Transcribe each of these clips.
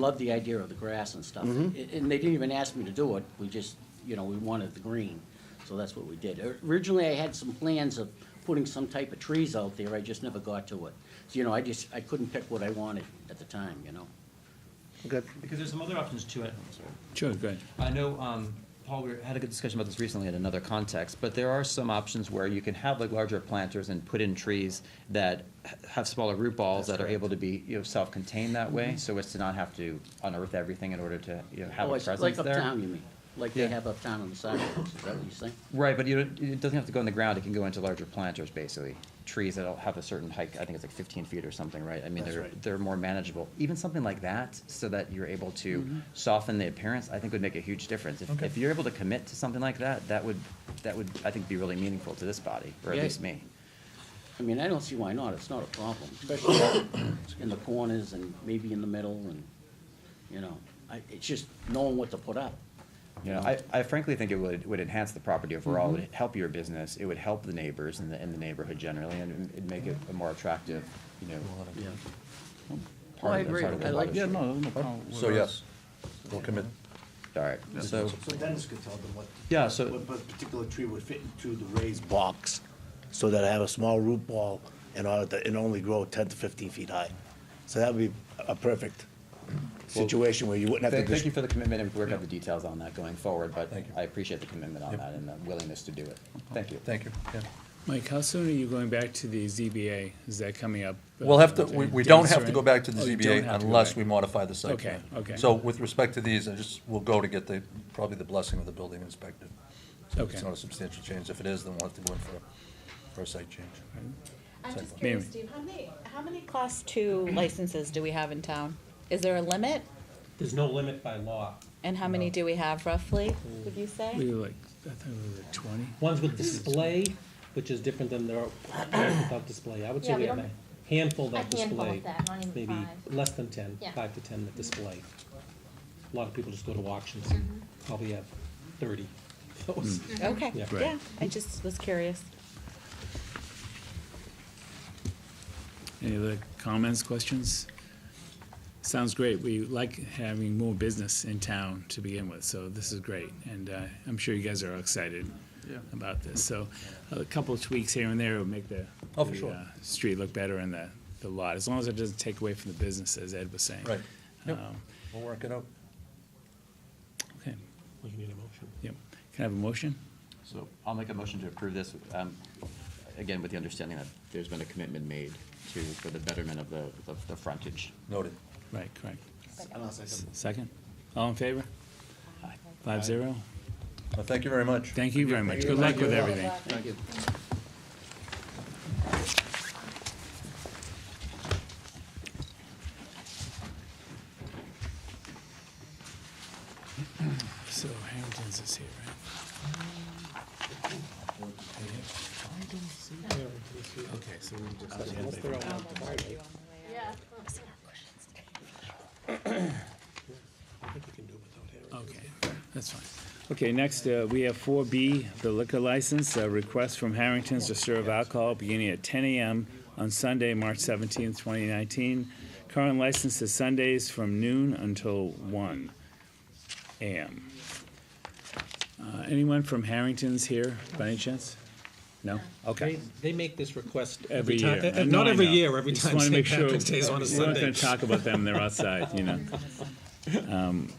Love the idea of the grass and stuff. A- And they didn't even ask me to do it, we just, you know, we wanted the green, so that's what we did. O- Originally, I had some plans of putting some type of trees out there, I just never got to it. So, you know, I just, I couldn't pick what I wanted at the time, you know? Good. Because there's some other options too. I- I'm sorry. Sure, go ahead. I know, um, Paul, we had a good discussion about this recently in another context, but there are some options where you can have like larger planters and put in trees that h- have smaller root balls that are able to be, you know, self-contained that way, so as to not have to unearth everything in order to, you know, have Oh, a I s- presence Like there. uptown, you mean? Like they Yeah. have uptown on the sidewalks, is that what you're saying? Right, but you don't, it doesn't have to go in the ground, it can go into larger planters, basically. Trees that'll have a certain height, I think it's like fifteen feet or something, right? I mean, That's they're, right. they're more manageable. Even something like that, so that you're able to Mm-hmm. soften the appearance, I think would make a huge difference. If, Okay. if you're able to commit to something like that, that would, that would, I think, be really meaningful to this body, or at Yeah. least me. I mean, I don't see why not, it's not a problem, especially out in the corners and maybe in the middle and, you know, I, it's just knowing what to put up. You know, I, I frankly think it would, would enhance the property Mm-hmm. overall, it would help your business, it would help the neighbors in the, in the neighborhood generally, and it'd make it a more attractive, you know, Yeah. part Oh, I of the, agree. part of the I like- body. Yeah, no, no problem. So yes, we'll commit. All right, so. So Dennis could tell them what. Yeah, so- What what particular tree would fit into the raised box, so that I have a small root ball and I, and only grow ten to fifteen feet high. So that would be a perfect situation where you wouldn't have Thank to. thank you dis- for the commitment, and we're gonna have the details on that going forward, but Thank you. I appreciate the commitment on Yep. that and the willingness to do it. Thank you. Thank you, yeah. Mike, how soon are you going back to the ZBA? Is that coming up? We'll have to, Uh, we, we dates don't have or to go back to any- the Oh, you don't ZBA have to go unless back. we modify the site Okay, plan. okay. So with respect to these, I just, we'll go to get the, probably the blessing of the building inspector. So if Okay. It's not a substantial change. If it is, then we'll have to go in for, a- for a site change. I'm just Second. curious, Mary. Steve, how many, how many class two licenses do we have in town? Is there a limit? There's no limit by law. And how many do we have roughly, would you We say? were like, I thought we were at twenty. Ones with display, which is different than there are without display. I would say Yeah, we we have a don't- handful A that handful display. of that, not even Maybe five. less than ten, Yeah. five to ten that display. A lot of people just go to auctions Mm-hmm. and probably have thirty. Those. Okay, Yeah. Mm. Right. yeah, I just was curious. Any other comments, questions? Sounds great. We like having more business in town to begin with, so this is great. And uh, I'm sure you guys are excited about this. So a couple of tweaks here and there will make the Oh, for the, sure. uh, street look better and the the lot, as long as it doesn't take away from the business, as Ed was saying. Right. Yep. Um, We'll work it out. Okay, We need a motion. yep. Can I have a motion? So I'll make a motion to approve this, um, again, with the understanding that there's been a commitment made to, for the betterment of the, of the frontage. Noted. Right, correct. And I'll second. Second? All in favor? Five zero. Well, thank you very much. Thank you very much. Good luck with everything. Thank you. So Harrington's is here, right? Okay, so we just. Yeah. Okay, that's fine. Okay, next, uh, we have four B, the liquor license, a request from Harrington's to serve alcohol beginning at ten AM on Sunday, March seventeenth, twenty nineteen. Current license is Sundays from noon until one AM. Uh, anyone from Harrington's here by any chance? No? Okay. They, they make this request Every every year. time, I uh, know, not I every know. year, every Just time wanna St. make sure- Patrick's Day is on a We're not Sunday. gonna talk about them, they're outside, you know. Um,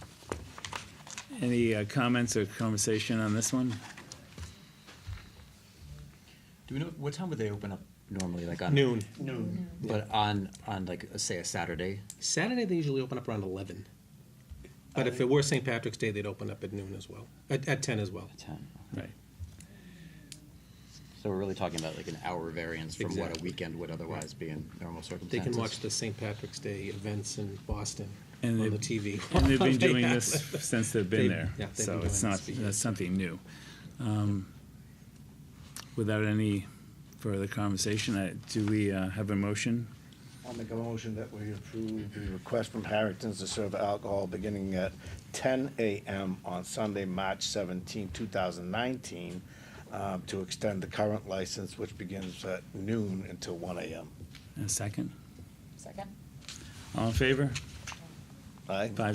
Any uh, comments or conversation on this one? Do we know, what time would they open up normally, like on? Noon. But on, on like, say, a Saturday? Saturday, they usually open up around eleven. But if it were St. Patrick's Day, they'd open up at noon as well, at, at ten as well. Ten. Right. So we're really talking about like an hour variance from what a Exactly. weekend would otherwise be in normal They circumstances. can watch the St. Patrick's Day events in Boston on And the they've- TV. And they've been They doing have. this since they've been They- there, yeah, they've been so doing it's this not, for years. that's something new. Um, Without any further conversation, I- do we uh, have a motion? I'll make a motion that we approve the request from Harrington's to serve alcohol beginning at ten AM on Sunday, March 17, thousand nineteen, um, to extend the current license, which begins at noon until one AM. And A second? Second? All in favor? Aye. Five